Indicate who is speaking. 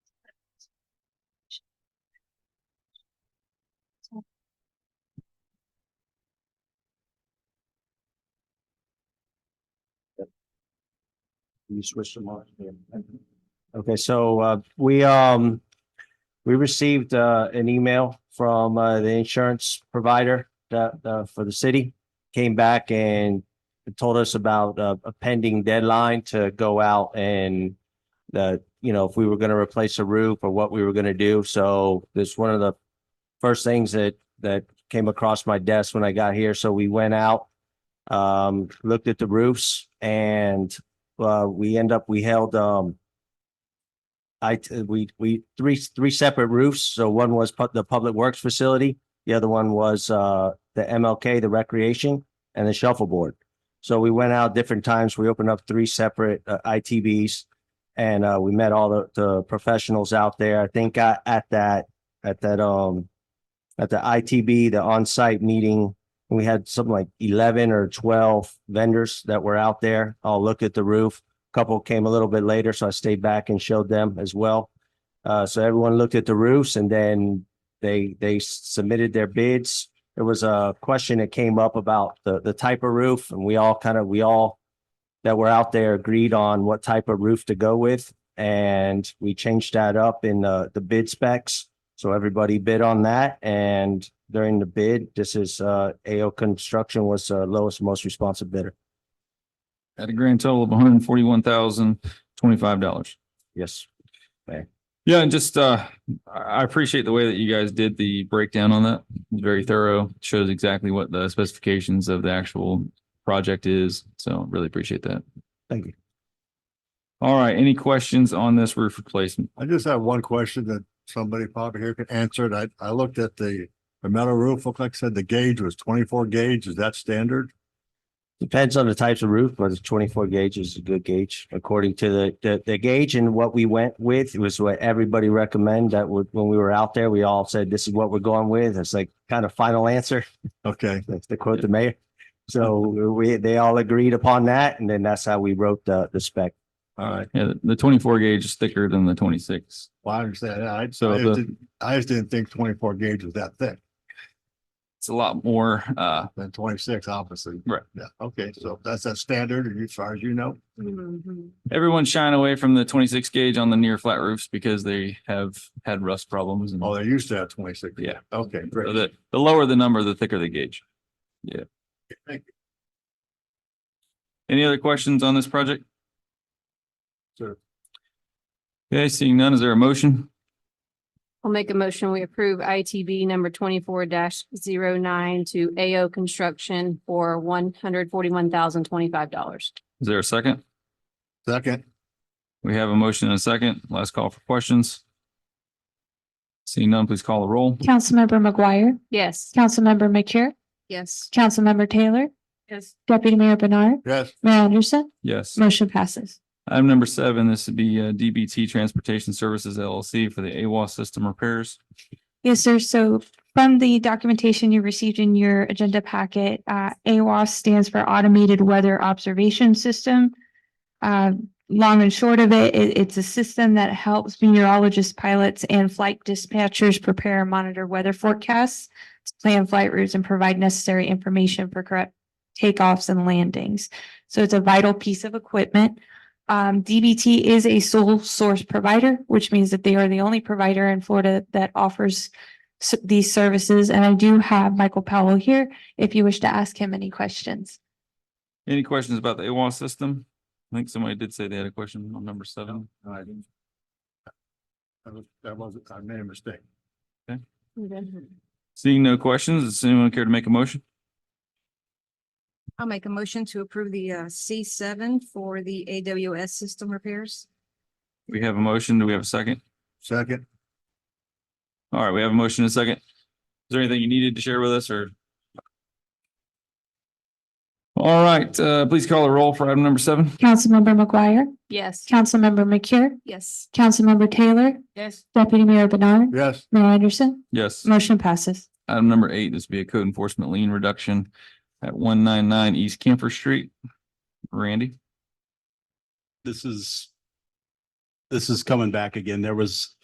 Speaker 1: You switched them off. Okay, so uh, we, um, we received uh, an email from uh, the insurance provider that, uh, for the city. Came back and told us about uh, a pending deadline to go out and that, you know, if we were going to replace a roof or what we were going to do. So this one of the first things that, that came across my desk when I got here. So we went out, um, looked at the roofs and uh, we end up, we held, um, I, we, we, three, three separate roofs. So one was pu- the Public Works Facility. The other one was, uh, the MLK, the Recreation and the Shuffleboard. So we went out different times. We opened up three separate, uh, ITBs. And, uh, we met all the, the professionals out there. I think I, at that, at that, um, at the ITB, the on-site meeting, we had something like eleven or twelve vendors that were out there. I'll look at the roof. A Couple came a little bit later, so I stayed back and showed them as well. Uh, so everyone looked at the roofs and then they, they submitted their bids. There was a question that came up about the, the type of roof and we all kind of, we all that were out there agreed on what type of roof to go with. And we changed that up in the, the bid specs. So everybody bid on that and during the bid, this is uh AO Construction was uh lowest, most responsive bidder.
Speaker 2: At a grand total of one hundred and forty-one thousand, twenty-five dollars.
Speaker 1: Yes.
Speaker 2: Yeah, and just, uh, I, I appreciate the way that you guys did the breakdown on that. Very thorough, shows exactly what the specifications of the actual project is. So really appreciate that.
Speaker 1: Thank you.
Speaker 2: All right, any questions on this roof replacement?
Speaker 3: I just have one question that somebody probably here could answer it. I, I looked at the, the metal roof, looked like I said the gauge was twenty-four gauge. Is that standard?
Speaker 1: Depends on the types of roof, but the twenty-four gauge is a good gauge according to the the the gauge and what we went with. It was what everybody recommend that would, when we were out there, we all said, this is what we're going with. It's like kind of final answer.
Speaker 3: Okay,
Speaker 1: That's the quote the mayor. So we, they all agreed upon that and then that's how we wrote the the spec.
Speaker 3: all right.
Speaker 2: Yeah, the- the twenty-four gauge is thicker than the twenty-six.
Speaker 3: Well, I understand. that. I, I just
Speaker 2: So the-
Speaker 3: didn't, I just didn't think twenty-four gauge was that thick
Speaker 2: It's a lot more, uh,
Speaker 3: than twenty-six, obviously.
Speaker 2: Right.
Speaker 3: Yeah, okay, so that's a standard and as far as you know.
Speaker 2: everyone's shying away from the twenty-six gauge on the near flat roofs because they have had rust problems and
Speaker 3: Oh, they used to have twenty-six.
Speaker 2: Yeah.
Speaker 3: Okay,
Speaker 2: so
Speaker 3: great.
Speaker 2: the, the lower the number, the thicker the gauge.
Speaker 3: Thank you,
Speaker 2: Any other questions on this project?
Speaker 3: sir.
Speaker 2: Okay, seeing none, is there a motion?
Speaker 4: I'll make a motion. We approve ITB number twenty-four 9 to AO Construction for one hundred forty-one thousand twenty-five dollars.
Speaker 2: Is there a second?
Speaker 3: Second,
Speaker 2: We have a motion and a second. Last call for questions. Seeing none, please call the roll.
Speaker 5: Councilmember McGuire,
Speaker 4: Yes.
Speaker 5: Councilmember McCure,
Speaker 4: Yes.
Speaker 5: Councilmember Taylor,
Speaker 4: Yes.
Speaker 5: Deputy Mayor Bernard,
Speaker 3: yes,
Speaker 5: Mayor Anderson,
Speaker 2: Yes.
Speaker 5: motion passes.
Speaker 2: Item number seven, this would be uh, DBT Transportation Services LLC for the AWAS system repairs.
Speaker 5: Yes, sir. So from the documentation you received in your agenda packet, uh, AWOS stands for Automated Weather Observation System. Uh, long and short of it, it- it's a system that helps meteorologists, pilots, and flight dispatchers prepare and monitor weather forecasts, plan flight routes, and provide necessary information for correct takeoffs and landings. So it's a vital piece of equipment. Um, DBT is a sole source provider, which means that they are the only provider in Florida that offers s- these services. And I do have Michael Powell here if you wish to ask him any questions.
Speaker 2: Any questions about the AWAS system? I think somebody did say they had a question on number seven.
Speaker 3: all right. That was- That wasn't, I made a mistake.
Speaker 2: Seeing no questions, does anyone care to make a motion?
Speaker 6: I'll make a motion to approve the uh C seven for the AWS system repairs.
Speaker 2: We have a motion. Do we have a second?
Speaker 3: Second,
Speaker 2: All right, we have a motion and a second. Is there anything you needed to share with us or? All right, uh, please call the roll for item number seven.
Speaker 5: Councilmember McGuire,
Speaker 4: Yes.
Speaker 5: Councilmember McCure,
Speaker 6: Yes.
Speaker 5: Councilmember Taylor,
Speaker 6: Yes.
Speaker 5: Deputy Mayor Bernard,
Speaker 3: yes,
Speaker 5: Mayor Anderson,
Speaker 2: Yes.
Speaker 5: motion passes.
Speaker 2: Item number eight, this would be a code enforcement lien reduction at one nine nine East Kemper Street. Randy,
Speaker 7: this is this is coming back again. There was